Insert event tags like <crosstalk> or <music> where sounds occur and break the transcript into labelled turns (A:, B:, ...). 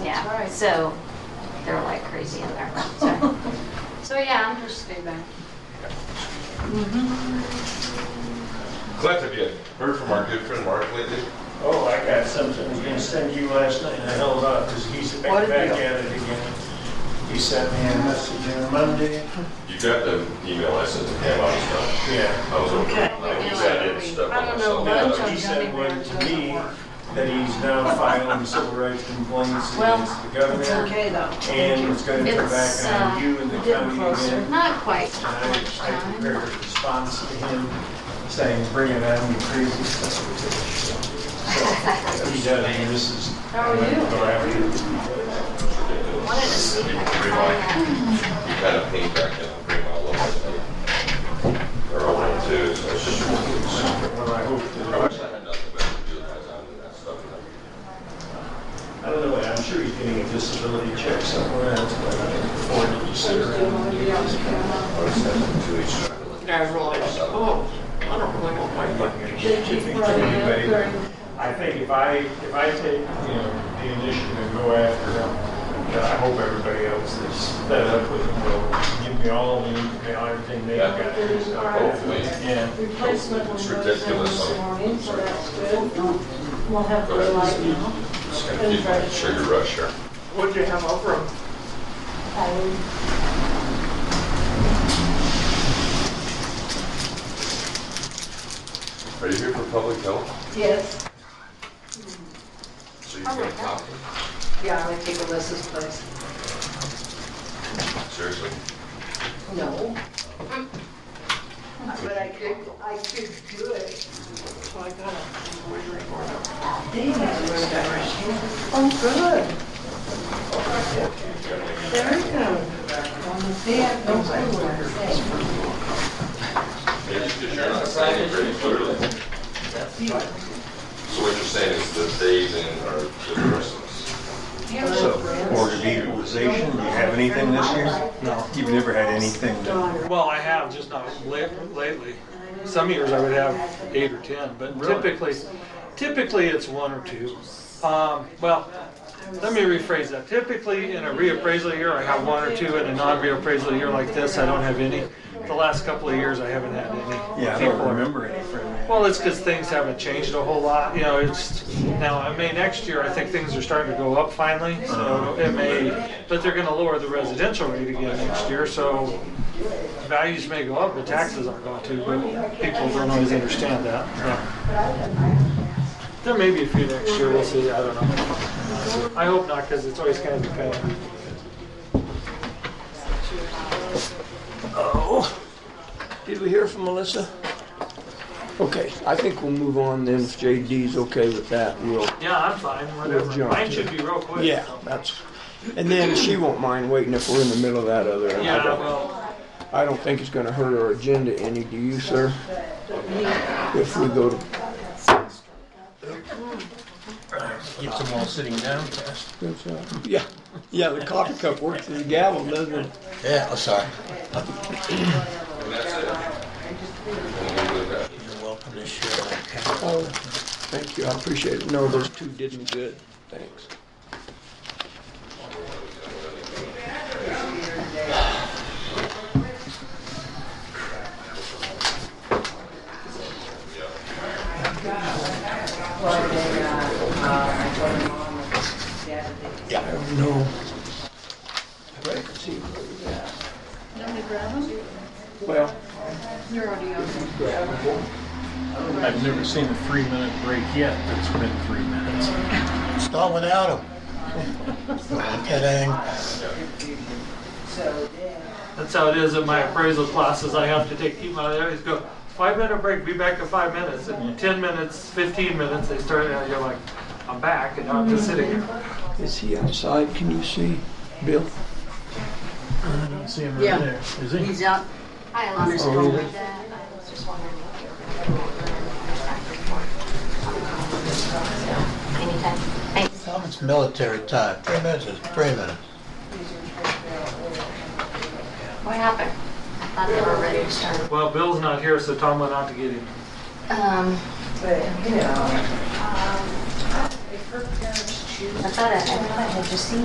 A: right.
B: So they're like crazy in <laughs> there. So, so yeah, I'm just feedback.
C: Glad to you heard from our good friend Mark lately.
D: Oh, I got something I was gonna send you last night, and I held off, because he's
A: What
D: back
A: is
D: back
A: it?
D: at it again. He sent me a message on Monday.
C: You got the email I sent to him, I was done.
D: Yeah.
C: I was over.
A: Okay.
C: I was- I didn't step
A: I don't
C: on
A: know,
C: myself.
A: but-
D: He sent one to me that he's now filing civil rights complaints
A: Well,
D: against the
A: It's
D: governor,
A: okay though.
D: and it's gonna come
B: It's,
D: back
B: uh,
D: on you and the
A: getting
D: county
A: closer.
D: again.
B: Not quite
D: And I
B: much
D: I
B: time.
D: prepared a response to him saying, bring it on, you crazy stuff. So, He does, and this is.
A: How are you?
D: Go after.
B: Wanted to see if I uh, could
C: Bring
B: find
C: my,
B: that.
C: kind of paint back in, bring my logo. They're all in too, so it's just.
D: Well, I hope that.
C: I wish I had nothing better to do with my time than that stuff.
D: I don't know, I'm sure he's getting a disability check somewhere, that's why I can afford to just sit around. and do this.
C: I would send them to each other.
E: I realized, oh, I don't really want my fucking
D: Did you think anybody- I think if I, if I take, you know, the initiative and go after him, you know, I hope everybody else that's fed up with him will give me all the, you know, everything they've
C: Yeah.
D: got. and stuff.
C: Hopefully.
D: Yeah.
A: Replacement on
C: It's
A: those
C: ridiculous.
A: this morning, so that's good. We'll have the light now.
C: Just gonna keep my sugar rush here.
E: What'd you have over them?
A: Um,
C: Are you here for public health?
A: Yes,
C: So you can talk?
A: yeah, I would take Alyssa's place.
C: Seriously?
A: No. But I could, I could do it.
E: So I got a wavering order.
A: Oh, good.
C: Generally,
A: Very good. Yeah, no problem.
C: Because you're not signing pretty clearly. So what you're saying is the days in are the persons.
D: So, Board of Equalization, do you have anything this year? No. You've never had anything that
F: Well, I have, just not late- lately. Some years I would have eight or 10, but typically, typically it's one or two. Um, Well, let me rephrase that. Typically, in a reappraisal year, I have one or two. In a non-reappraisal year like this, I don't have any. The last couple of years, I haven't had any.
D: Yeah, I don't
F: People are-
D: remember any from that.
F: Well, it's because things haven't changed a whole lot, you know, it's, now, I mean, next year, I think things are starting to go up finally, so it may, but they're gonna lower the residential rate again next year, so values may go up, but taxes aren't going to, but people don't always understand that. There may be a few next year, we'll see, I don't know. I hope not, because it's always kind of a pain.
E: Oh, did we hear from Melissa? Okay, I think we'll move on then if JD's okay with that, we'll,
F: Yeah, I'm fine, whatever,
E: jump
F: mine
E: to
F: should be real quick.
E: yeah, that's, and then she won't mind waiting if we're in the middle of that other. and I
F: Yeah,
E: don't-
F: well,
E: I don't think it's gonna hurt our agenda any, do you, sir? If we go to,
D: keeps them all sitting down fast.
E: yeah, yeah, the coffee cup works as a gavel, doesn't it?
G: Yeah, I'm sorry.
C: And that's it. And we do that.
G: You're welcome to share my account.
E: Oh, thank you, I appreciate it. No, those two did me good, thanks. Yeah, I don't know. I bet I can see where we at. Well,
B: You're already on.
D: I've never seen a three-minute break yet that's been three minutes.
G: It's not without him. Kidding.
F: That's how it is in my appraisal classes. I have to take people out of there. They go, five minute break, be back in five minutes. And 10 minutes, 15 minutes, they start, and you're like, I'm back, and now I'm just sitting here.
E: is he outside? Can you see, Bill?
D: I don't see him
A: Yeah.
D: right there, is he?
A: He's out.
B: I lost
E: Oh,
B: all
E: really?
B: of that. I was just wondering if you were gonna go over and Anytime. Thanks.
G: Tom, it's military time. Three minutes is three minutes.
B: What happened? I thought they were ready to start.
F: Well, Bill's not here, so Tom went out to get him.
B: Um,
A: But, you know.
B: I thought I, I thought I had just seen